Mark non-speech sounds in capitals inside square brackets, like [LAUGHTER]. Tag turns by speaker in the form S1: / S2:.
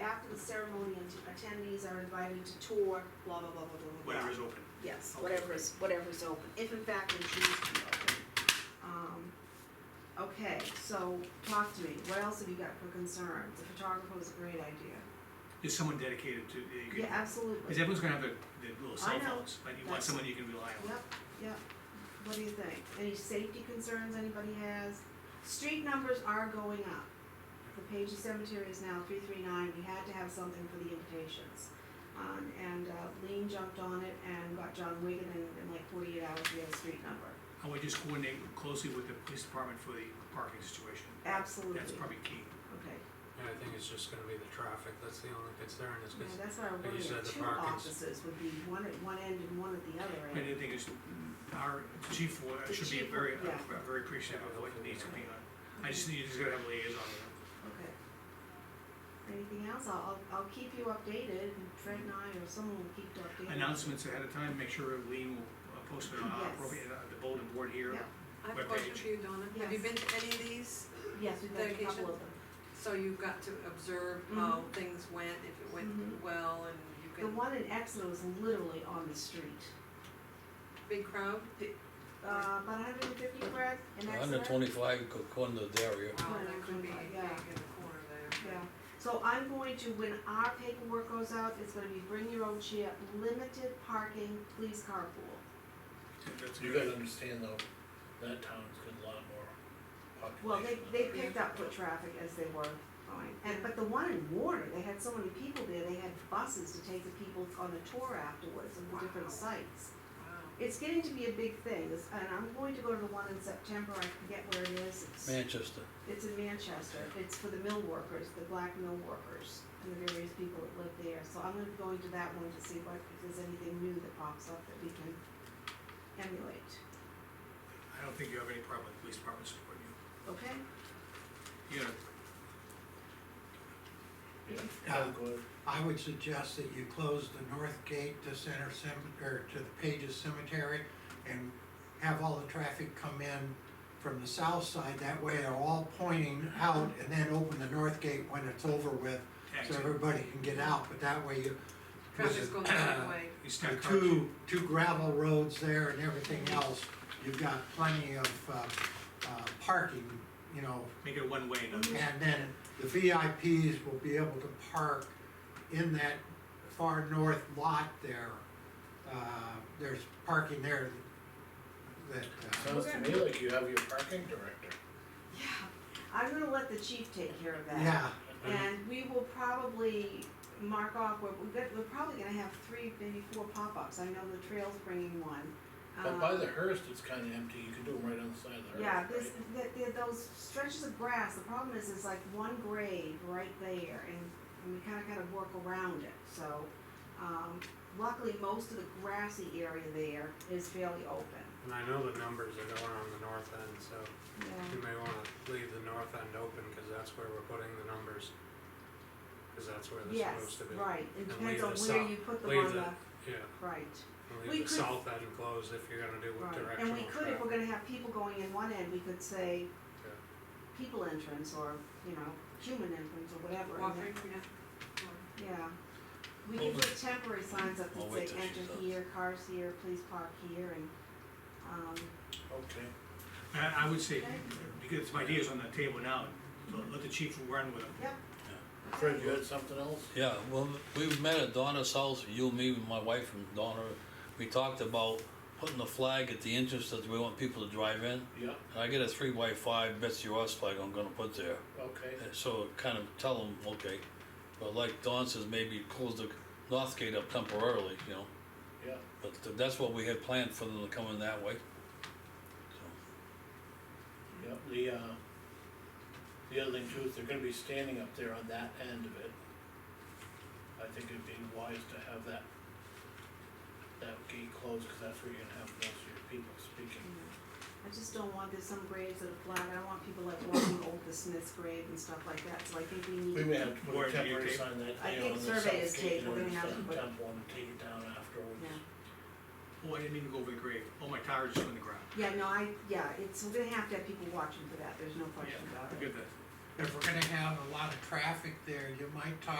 S1: after the ceremony, ante- attendees are invited to tour, blah, blah, blah, blah, blah, blah, blah.
S2: whatever is open.
S1: Yes,
S2: Okay,
S1: whatever is, whatever is open, if in fact they choose to be open. Um, Okay, so talk to me, what else have you got for concerns? The photographer was a great idea.
S2: Is someone dedicated to, you
S1: Yeah,
S2: can, because
S1: absolutely.
S2: everyone's gonna have their, their
S1: I
S2: little cell
S1: know.
S2: phones, but you want
S1: That's-
S2: someone you can rely on.
S1: Yep, yep. What do you think? Any safety concerns anybody has? Street numbers are going up. The Page Cemetery is now three three nine, we had to have something for the invitations. Um, and uh, Lean jumped on it and got John Wigan and in like forty-eight hours, we had a street number.
S2: I would just coordinate closely with the police department for the parking situation.
S1: Absolutely.
S2: That's probably key.
S1: Okay,
S3: And I think it's just gonna be the traffic, that's the only concern, is
S1: yeah,
S3: because
S1: that's why I
S3: you
S1: wondered,
S3: said the
S1: two
S3: parking's-
S1: offices would be one at one end and one at the other end.
S2: And the thing is, our chief wa-
S1: The
S2: should be
S1: chief,
S2: very,
S1: yeah.
S2: very appreciative of what needs to be on. I just, you just gotta have a liaison with them.
S1: Okay. Anything else? I'll, I'll, I'll keep you updated, and Fred and I, or someone will keep you updated.
S2: announcements ahead of time, make sure Lean will uh, post it on our
S1: Yes.
S2: appropriate, uh, the bulletin board here.
S1: Yep.
S4: I have a question
S2: webpage.
S4: for you, Donna. Have you
S1: Yes.
S4: been to any of these?
S1: Yes, we've got a couple of them.
S4: So you've got to observe how things went, if it
S1: Mhm.
S4: went well, and you
S1: Mm-hmm. The
S4: can,
S1: one in Exeter was literally on the street.
S4: big crowd?
S1: Uh, about hundred and fifty, Brad, in Exeter?
S5: Hundred twenty-five according to Dario.
S4: Wow, Oh, that could be big in the
S1: Yeah.
S4: corner there.
S1: Yeah, so I'm going to, when our paperwork goes out, it's gonna be bring your own chair, limited parking, please carpool.
S2: That's
S6: You
S2: good.
S6: gotta understand though, that town's got a lot more
S1: Well,
S6: population.
S1: they,
S6: than
S1: they
S6: that.
S1: picked up foot traffic as they were going, and, but the one in Warner, they had so many people there, they had buses to take the people on a tour afterwards of the different sites.
S4: Wow.
S1: It's getting to be a big thing, This- and I'm going to go to the one in September, I forget where it is, it's.
S5: Manchester.
S1: It's in Manchester, it's for the mill workers, the black mill workers, and the various people that live there, so I'm gonna be going to that one to see what, if there's anything new that pops up that we can emulate,
S2: I don't think you have any problem with police department supporting you.
S1: okay?
S2: You know,
S6: How's it going?
S7: I would suggest that you close the north gate to Center Cem, or to the Pages Cemetery and have all the traffic come in from the south side, that way they're all pointing out, and then open the north gate when it's over with, so
S2: taxi,
S7: everybody can get out, but that way you. uh,
S4: Traffic's going the
S1: [CLEARS THROAT]
S4: right way.
S2: you
S7: The
S2: stack cars.
S7: two, two gravel roads there and everything else, you've got plenty of, uh, uh, parking, you know,
S2: make it one way, no,
S7: and then the VIPs will be able to park in that far north lot there. Uh, there's parking there that, uh,
S6: Sounds to me like you have your parking director.
S1: Yeah, I'm gonna let the chief take care of that.
S7: yeah,
S1: And we will probably mark off, where we've got, we're probably gonna have three, maybe four pop-ups, I know the trail's bringing one.
S6: But Oh, by
S1: Um,
S6: the Hearst, it's kinda empty, you can do them right on the side of the Hearst,
S1: Yeah,
S6: right?
S1: there's, th th those stretches of grass, the problem is, it's like one grade right there, and, and we kinda kinda work around it, so, um, luckily, most of the grassy area there is fairly open.
S3: and I know the numbers are going on the north end, so
S1: Yeah.
S3: you may wanna leave the north end open, because that's where we're putting the numbers. Because that's where they're
S1: Yes,
S3: supposed to be.
S1: right, it
S3: And
S1: depends
S3: leave
S1: on
S3: the
S1: where
S3: sou-
S1: you put them
S3: leave
S1: on
S3: the-
S1: the,
S3: Yeah,
S1: right,
S3: and
S1: We
S3: leave
S1: could-
S3: the south end closed if you're gonna do with
S1: right, and
S3: directional
S1: we
S3: traffic.
S1: could, if we're gonna have people going in one end, we could say
S3: Yeah.
S1: people entrance, or, you know, human entrance, or whatever, and then-
S4: Walking, yeah.
S1: Yeah, we can put temporary signs up that
S5: I'll
S1: say
S5: wait till she
S1: enter
S5: does.
S1: here, cars here, please park here and, um,
S6: Okay,
S2: I, I would say, because my idea's on the table now, let- let the chief run with it.
S1: yep.
S6: Fred, you had something else?
S5: Yeah, well, we met at Donna's house, you, me, and my wife and Donna. We talked about putting the flag at the entrance that we want people to drive in.
S6: Yeah,
S5: And I get a three by five Betsy Ross flag I'm gonna put there.
S6: okay,
S5: And so kind of tell them, okay, but like Don says, maybe close the north gate up temporarily, you know.
S6: yeah,
S5: But th- that's what we had planned for them to come in that way. So,
S6: yeah, the, uh, the other thing too is they're gonna be standing up there on that end of it. I think it'd be wise to have that, that gate closed, cause that's where you're gonna have most of your people speaking.
S1: I just don't want, there's some graves that are flat, I don't want people like walking over the Smith's grave and stuff like that, so I think we need,
S6: We may have to put
S2: Warren,
S6: a
S2: do you
S6: temporary
S2: agree?
S6: sign that
S1: I
S6: day
S1: think
S6: on the
S1: survey
S6: south
S1: is
S6: gate,
S1: taken. We're
S6: or
S1: gonna have to
S6: some
S1: put-
S6: temp one, and take it down afterwards.
S1: yeah.
S2: Oh, I didn't mean to go over the grave, oh, my tire just went in the ground.
S1: Yeah, no, I, yeah, it's, we're gonna have to have people watching for that, there's no question about Oh, it.
S2: Forget that.
S7: if we're gonna have a lot of traffic there, you might talk